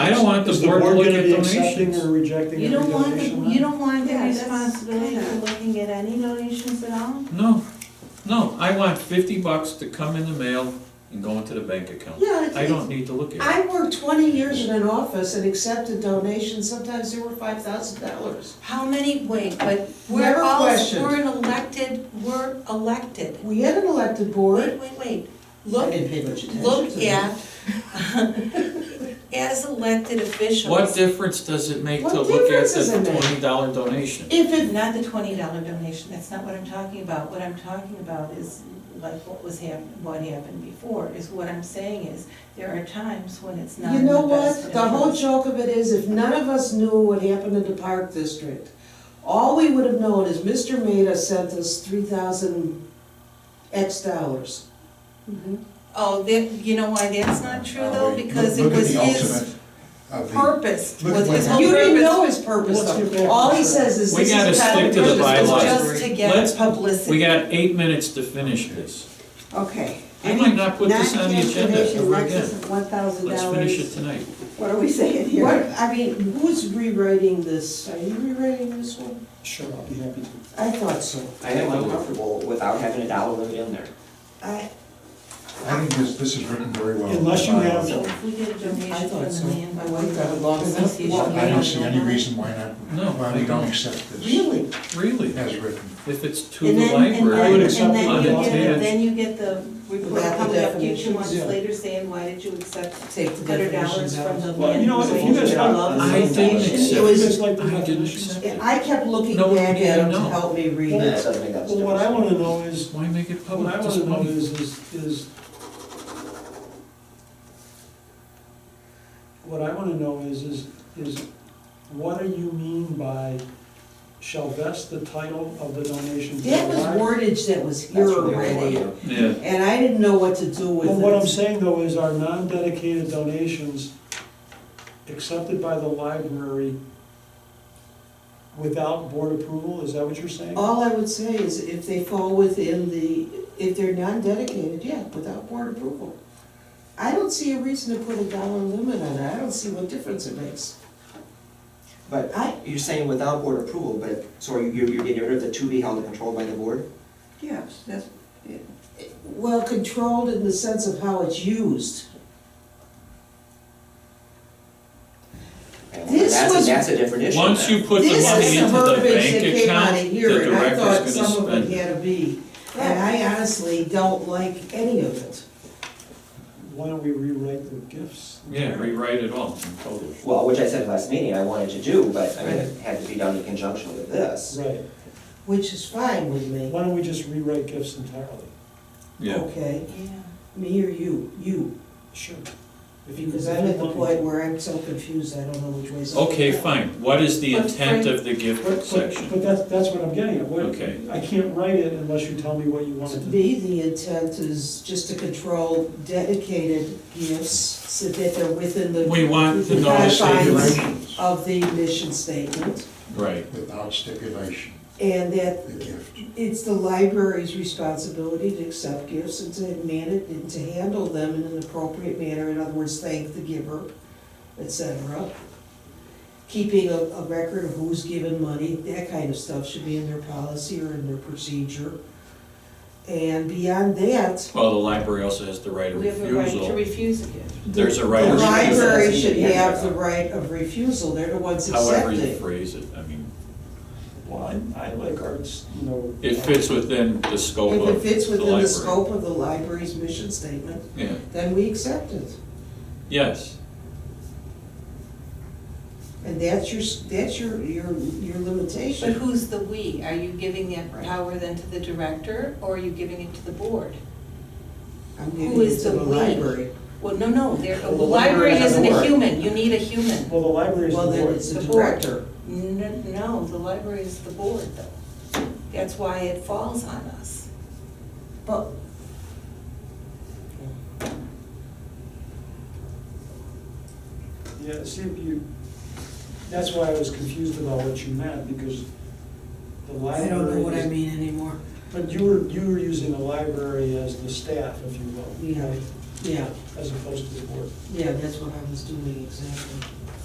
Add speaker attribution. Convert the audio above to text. Speaker 1: I don't want the
Speaker 2: Is the
Speaker 1: board to
Speaker 2: board
Speaker 1: look
Speaker 2: gonna
Speaker 1: at
Speaker 2: be accepting
Speaker 1: donations.
Speaker 2: or rejecting
Speaker 3: You
Speaker 2: every
Speaker 3: don't want, the-
Speaker 2: donation?
Speaker 3: you
Speaker 2: then?
Speaker 3: don't want the
Speaker 4: Yeah, that's
Speaker 3: responsibility for
Speaker 4: kinda-
Speaker 3: looking at any donations at all?
Speaker 1: No, no, I want fifty bucks to come in the mail and go into the bank account.
Speaker 4: Yeah, it's-
Speaker 1: I don't need to look at it.
Speaker 4: I worked twenty years in an office and accepted donations, sometimes they were five thousand dollars.
Speaker 3: How many, wait, but we're
Speaker 4: Never
Speaker 3: all,
Speaker 4: questioned.
Speaker 3: we're an elected, we're elected.
Speaker 4: We had an elected
Speaker 3: Wait,
Speaker 4: board.
Speaker 3: wait, wait,
Speaker 4: I
Speaker 3: look,
Speaker 4: didn't pay much attention to
Speaker 3: look
Speaker 4: them.
Speaker 3: at, as elected officials.
Speaker 1: What difference does it make to
Speaker 4: What
Speaker 1: look at
Speaker 4: difference does
Speaker 1: the
Speaker 4: it make?
Speaker 1: twenty dollar donation?
Speaker 4: If it,
Speaker 3: Not the twenty dollar donation, that's not what I'm talking about. What I'm talking about is like what was hap, what happened before, is what I'm saying is, there are times when it's not
Speaker 4: you
Speaker 3: in the
Speaker 4: know
Speaker 3: best
Speaker 4: what, the whole
Speaker 3: interest.
Speaker 4: joke of it is, if none of us knew what happened in the park district, all we would have known is Mr. Maida sent us three thousand X dollars.
Speaker 3: Oh, that, you know why that's not true though,
Speaker 5: Uh, we-
Speaker 3: because it
Speaker 5: look at
Speaker 3: was
Speaker 5: the
Speaker 3: his
Speaker 5: ultimate of the-
Speaker 3: purpose,
Speaker 5: look
Speaker 3: was
Speaker 5: what
Speaker 3: his whole
Speaker 4: You didn't
Speaker 3: purpose
Speaker 4: know his purpose
Speaker 2: What's your
Speaker 4: though. All he
Speaker 2: purpose?
Speaker 4: says is
Speaker 1: We
Speaker 4: this is
Speaker 1: gotta
Speaker 4: kind of
Speaker 1: stick to the
Speaker 4: purpose of
Speaker 1: bylaws.
Speaker 4: this."
Speaker 3: just to get
Speaker 1: Let's-
Speaker 3: publicity.
Speaker 1: We got eight minutes to finish this.
Speaker 6: Okay.
Speaker 1: I might not put this on the agenda ever again.
Speaker 6: One thousand
Speaker 1: Let's finish
Speaker 6: dollars,
Speaker 1: it tonight.
Speaker 6: what are we saying here?
Speaker 4: What, I mean, who's rewriting this? Are you rewriting this one?
Speaker 2: Sure, I'll be happy to.
Speaker 4: I thought so.
Speaker 7: I am uncomfortable without having a dollar limit in there.
Speaker 4: I,
Speaker 5: I think this, this is written very well. Uh,
Speaker 2: Unless you have-
Speaker 3: So if we did a donation from
Speaker 4: thought so.
Speaker 3: the land by
Speaker 4: I got it locked up.
Speaker 3: association.
Speaker 4: Well,
Speaker 5: I don't see any reason why not,
Speaker 1: No,
Speaker 5: why
Speaker 1: I
Speaker 5: we
Speaker 1: don't.
Speaker 5: don't accept this
Speaker 4: really?
Speaker 1: Really,
Speaker 5: as written.
Speaker 1: if it's to
Speaker 3: And
Speaker 1: the
Speaker 3: then- and
Speaker 1: library.
Speaker 3: then-
Speaker 2: I would accept
Speaker 3: And then
Speaker 1: it.
Speaker 3: you get,
Speaker 1: Unintended.
Speaker 3: then you get the report
Speaker 4: Without the
Speaker 3: coming up to you two
Speaker 4: definitions,
Speaker 3: months
Speaker 2: yeah.
Speaker 3: later saying, why did you accept
Speaker 4: Take
Speaker 3: hundred
Speaker 4: the
Speaker 3: dollars
Speaker 4: definitions
Speaker 3: from
Speaker 4: out.
Speaker 3: the
Speaker 2: Well, you
Speaker 3: land
Speaker 2: know what, if you guys
Speaker 3: use
Speaker 2: have.
Speaker 3: law
Speaker 1: I didn't
Speaker 3: association?
Speaker 1: accept
Speaker 2: It
Speaker 3: It was-
Speaker 2: was like the
Speaker 1: I didn't
Speaker 2: definitions.
Speaker 1: accept
Speaker 4: I kept looking
Speaker 1: No,
Speaker 4: back
Speaker 1: we
Speaker 4: at
Speaker 1: didn't
Speaker 4: him to
Speaker 1: know.
Speaker 4: help me read
Speaker 2: Well,
Speaker 7: That
Speaker 4: it.
Speaker 7: doesn't make that much
Speaker 2: Well, what I
Speaker 7: difference.
Speaker 2: wanna know is,
Speaker 1: Why make it
Speaker 2: what
Speaker 1: public?
Speaker 2: I
Speaker 1: Just
Speaker 2: wanna know
Speaker 1: money.
Speaker 2: is, is, is, what I wanna know is, is, is what do you mean by shall vest the title of the donation? to
Speaker 4: That
Speaker 2: the
Speaker 4: was
Speaker 2: library?
Speaker 4: wordage that was here
Speaker 7: That's really all I
Speaker 4: already,
Speaker 7: want.
Speaker 1: Yeah,
Speaker 4: and I didn't know what to do with
Speaker 2: Well, what I'm
Speaker 4: it.
Speaker 2: saying though is our non-dedicated donations accepted by the library without board approval, is that what you're saying?
Speaker 4: All I would say is if they fall within the, if they're non-dedicated, yeah, without board approval. I don't see a reason to put a dollar limit on it, I don't see what difference it makes.
Speaker 7: But
Speaker 4: I-
Speaker 7: you're saying without board approval, but, so are you, you're you're getting rid of the to be held and controlled by the board?
Speaker 6: Yes, that's,
Speaker 4: Well, controlled in the sense of how it's used.
Speaker 7: And
Speaker 4: This
Speaker 7: that's a-
Speaker 4: was-
Speaker 7: That's a different issue.
Speaker 1: Once
Speaker 7: then.
Speaker 1: you put the
Speaker 4: This
Speaker 1: money
Speaker 4: is
Speaker 1: into the
Speaker 4: verbiage that
Speaker 1: bank
Speaker 4: came out
Speaker 1: account,
Speaker 4: of
Speaker 1: the
Speaker 4: here, and I thought
Speaker 1: director's
Speaker 4: some
Speaker 1: gonna
Speaker 4: of it
Speaker 1: spend. it.
Speaker 4: had to be, and I honestly don't like any of it.
Speaker 2: Why don't we rewrite the gifts?
Speaker 1: Yeah, rewrite it all in total.
Speaker 7: Well, which I said last meeting I wanted to do, but I mean, it had to be done in conjunction with this.
Speaker 2: Right,
Speaker 4: Which is fine with me,
Speaker 2: why don't we just rewrite gifts entirely?
Speaker 1: Yeah,
Speaker 4: okay,
Speaker 3: Yeah.
Speaker 4: me or you, you,
Speaker 2: Sure. If you-
Speaker 4: because I'm at the point where I'm so confused, I don't know which way's up.
Speaker 1: okay, fine, what is the
Speaker 3: But
Speaker 1: intent
Speaker 3: Frank-
Speaker 1: of the gift
Speaker 2: But, but,
Speaker 1: section?
Speaker 2: but that's, that's what I'm getting at, what,
Speaker 1: Okay.
Speaker 2: I can't write it unless you tell me what you want
Speaker 4: To
Speaker 2: it to be.
Speaker 4: me, the intent is just to control dedicated gifts, so that they're within the.
Speaker 1: We want the
Speaker 4: the
Speaker 1: notice
Speaker 4: confines
Speaker 5: Stipulations,
Speaker 4: Of the mission statement,
Speaker 1: Right,
Speaker 5: without stipulation,
Speaker 4: and that
Speaker 5: the gift.
Speaker 4: It's the library's responsibility to accept gifts and to manage and to handle them in an appropriate manner, in other words, thank the giver, et cetera. Keeping a, a record of who's given money, that kind of stuff should be in their policy or in their procedure. And beyond that,
Speaker 1: well, the library also has the right of
Speaker 3: We have a right to
Speaker 1: refusal.
Speaker 3: refuse a gift.
Speaker 1: There's a right
Speaker 4: the
Speaker 1: of refusal,
Speaker 4: library should have the right of refusal, they're the ones
Speaker 1: however you
Speaker 4: accepting.
Speaker 1: phrase it, I mean,
Speaker 2: Well, I, I like arts, you know.
Speaker 1: it fits within the scope
Speaker 4: If
Speaker 1: of
Speaker 4: it
Speaker 1: the library.
Speaker 4: fits within the scope of the library's mission statement,
Speaker 1: Yeah,
Speaker 4: then we accept it.
Speaker 1: yes,
Speaker 4: And that's your, that's your, your, your
Speaker 3: But
Speaker 4: limitation.
Speaker 3: who's the "we"? Are you giving that power then to the director, or are you giving it to the board?
Speaker 4: I'm
Speaker 3: who
Speaker 4: giving it
Speaker 3: is
Speaker 4: to
Speaker 3: the
Speaker 4: the
Speaker 3: we?
Speaker 4: library.
Speaker 3: Well, no, no, there, the
Speaker 2: Well, the library
Speaker 3: library
Speaker 2: has
Speaker 3: isn't
Speaker 2: a
Speaker 3: a
Speaker 2: board.
Speaker 3: human, you need a human.
Speaker 2: Well, the library's the
Speaker 4: Well, then
Speaker 2: board.
Speaker 4: it's the
Speaker 3: The board.
Speaker 4: director.
Speaker 3: N- No, the library is the board, though. That's why it falls on us.
Speaker 4: But.
Speaker 2: Yeah, see, if you, that's why I was confused about what you meant, because the
Speaker 4: I
Speaker 2: library.
Speaker 4: don't know what I
Speaker 2: is-
Speaker 4: mean anymore.
Speaker 2: But you were, you were using the library as the staff, if you will.
Speaker 4: Yeah.
Speaker 2: right,
Speaker 4: Yeah,
Speaker 2: As opposed to the board.
Speaker 4: yeah, that's what I was doing exactly.